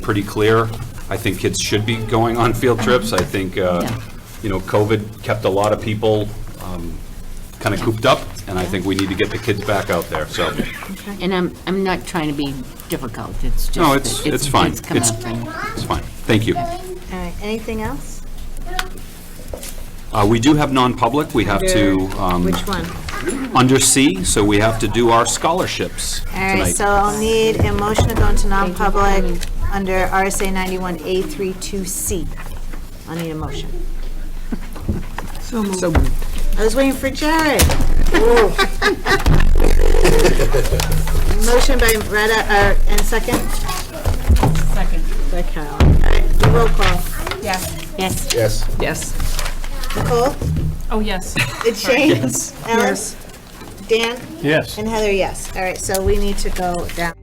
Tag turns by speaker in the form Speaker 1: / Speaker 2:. Speaker 1: pretty clear. I think kids should be going on field trips. I think, uh,
Speaker 2: Yeah.
Speaker 1: you know, COVID kept a lot of people kind of cooped up, and I think we need to get the kids back out there, so.
Speaker 2: And I'm, I'm not trying to be difficult, it's just.
Speaker 1: No,
Speaker 2: that
Speaker 1: it's, it's fine.
Speaker 2: It's come
Speaker 1: It's,
Speaker 2: up and-
Speaker 1: it's fine. Thank you.
Speaker 3: All right, anything else?
Speaker 1: Uh, We do have non-public. We have to, um,
Speaker 3: Which one?
Speaker 1: under C, so we have to do our scholarships
Speaker 3: All right,
Speaker 1: tonight.
Speaker 3: so I'll need a motion to go into non-public under RSA 91A32C. I'll need a motion. So moved. I was waiting for Jared. Motion by Retta, uh, and second? Second. By Carol. All right, roll call.
Speaker 2: Yes,
Speaker 4: Yes.
Speaker 5: Yes.
Speaker 3: Nicole?
Speaker 5: Oh, yes.
Speaker 3: It's Shane? Ellen? Dan?
Speaker 4: Yes.
Speaker 3: And Heather, yes. All right, so we need to go down.